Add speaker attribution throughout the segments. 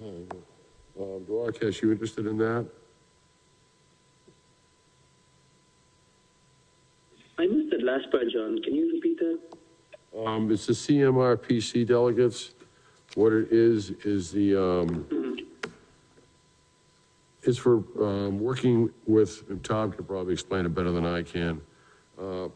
Speaker 1: Um, Duarkesh, you interested in that?
Speaker 2: I missed that last part, John. Can you repeat that?
Speaker 1: Um, it's the CMRPC delegates. What it is, is the, um, is for, um, working with, and Tom can probably explain it better than I can, uh,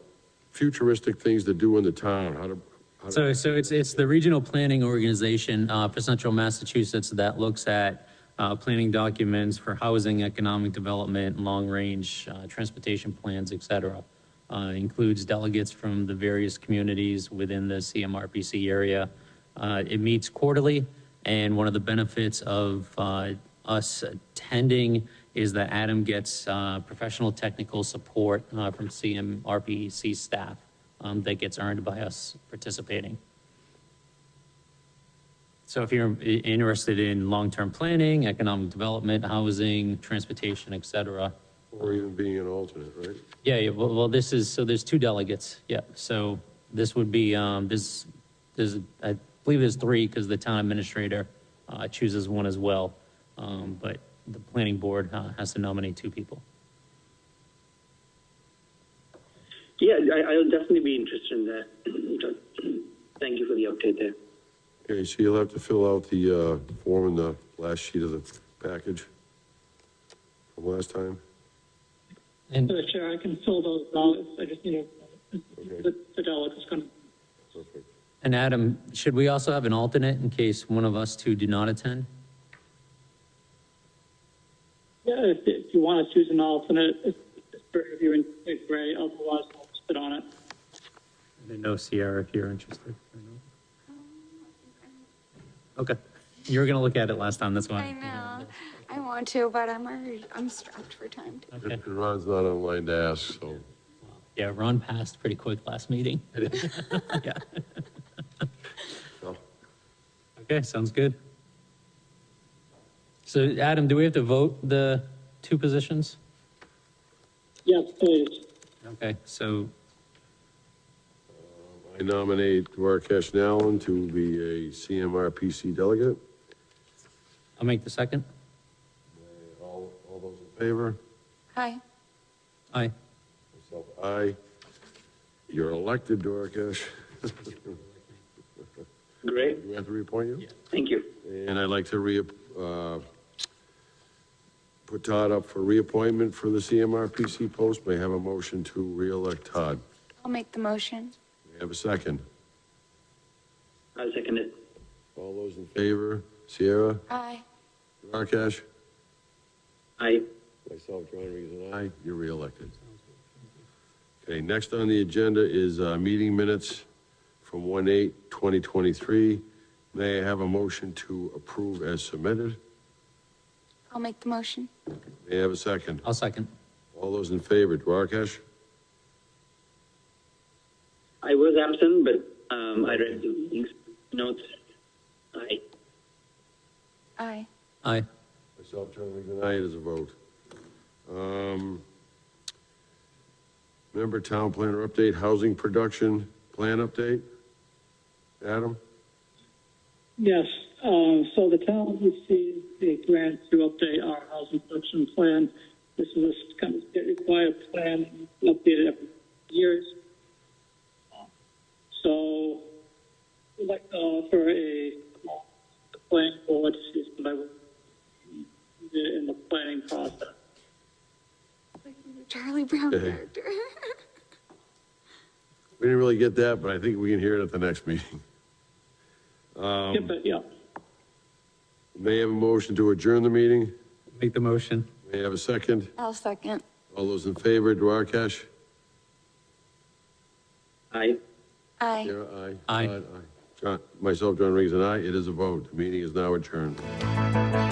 Speaker 1: futuristic things to do in the town, how to, how to,
Speaker 3: So, so it's, it's the regional planning organization uh, for central Massachusetts that looks at uh, planning documents for housing, economic development, long-range uh, transportation plans, et cetera. Uh, Includes delegates from the various communities within the CMRPC area. Uh, It meets quarterly, and one of the benefits of uh, us attending is that Adam gets uh, professional technical support uh, from CMRPC staff um, that gets earned by us participating. So if you're i- interested in long-term planning, economic development, housing, transportation, et cetera,
Speaker 1: or even being an alternate, right?
Speaker 3: yeah, yeah, well, well, this is, so there's two delegates, yeah, so this would be, um, this, there's, I believe there's three, because the town administrator, uh, chooses one as well, um, but the planning board, uh, has to nominate two people.
Speaker 2: Yeah, I, I'll definitely be interested in that. John. Thank you for the update there.
Speaker 1: Okay, so you'll have to fill out the, uh, form in the last sheet of the package from last time.
Speaker 3: And,
Speaker 4: So, Chair, I can fill those out, I just need a,
Speaker 1: Okay.
Speaker 4: the, the delegate is gonna,
Speaker 1: Perfect.
Speaker 3: and Adam, should we also have an alternate in case one of us two do not attend?
Speaker 4: yeah, if, if you wanna choose an alternate, if, if you're in, if Ray, otherwise I'll sit on it.
Speaker 3: I didn't know, Sierra, if you're interested. or
Speaker 5: Um,
Speaker 3: not. Okay, you were gonna look at it last time, that's why.
Speaker 5: I know. I want to, but I'm already, I'm strapped for time.
Speaker 3: Okay.
Speaker 1: And Ron's not online to ask, so.
Speaker 3: Yeah, Ron passed pretty quick last meeting. Yeah.
Speaker 1: no.
Speaker 3: Okay, sounds good. So Adam, do we have to vote the two positions?
Speaker 4: Yeah, please,
Speaker 3: Okay, so,
Speaker 1: I nominate Duarkesh Nallon to be a CMRPC delegate.
Speaker 3: I'll make the second.
Speaker 1: All, all those in favor?
Speaker 5: Hi.
Speaker 3: Aye.
Speaker 1: Myself, aye. You're elected, Duarkesh.
Speaker 2: Great.
Speaker 1: Do we have to reappoint you?
Speaker 2: Thank you.
Speaker 1: And I'd like to re, uh, put Todd up for reappointment for the CMRPC post. May I have a motion to reelect Todd.
Speaker 5: I'll make the motion.
Speaker 1: May I have a second?
Speaker 2: I'll second it.
Speaker 1: All those in favor? Sierra,
Speaker 5: Aye.
Speaker 1: Duarkesh?
Speaker 2: I,
Speaker 1: Myself, John Regan, and I. You're reelected. Okay, next on the agenda is uh, meeting minutes from 1/8/2023. May I have a motion to approve as submitted?
Speaker 5: I'll make the motion.
Speaker 1: May I have a second?
Speaker 3: I'll second.
Speaker 1: All those in favor, Duarkesh?
Speaker 2: I was absent, but um, I read the things, notes. I,
Speaker 5: Aye.
Speaker 3: Aye.
Speaker 1: Myself, John Regan, and I. It is a vote. Um, Member Town Planner Update, Housing Production Plan Update? Adam?
Speaker 4: yes, um, so the town received a grant to update our housing production plan. This is a kind of state required plan, updated every years. So, we'd like to offer a, the planning board, is what I would in the planning process.
Speaker 5: Like the Charlie Brown
Speaker 1: Hey.
Speaker 5: character.
Speaker 1: We didn't really get that, but I think we can hear it at the next meeting.
Speaker 4: Yeah, but, yeah.
Speaker 1: May I have a motion to adjourn the meeting?
Speaker 3: Make the motion.
Speaker 1: May I have a second?
Speaker 5: I'll second.
Speaker 1: All those in favor, Duarkesh?
Speaker 2: I.
Speaker 5: Aye.
Speaker 1: Kira, aye.
Speaker 3: Aye.
Speaker 1: Todd, John, myself, John Regan, and I. It is a vote. The meeting is now adjourned.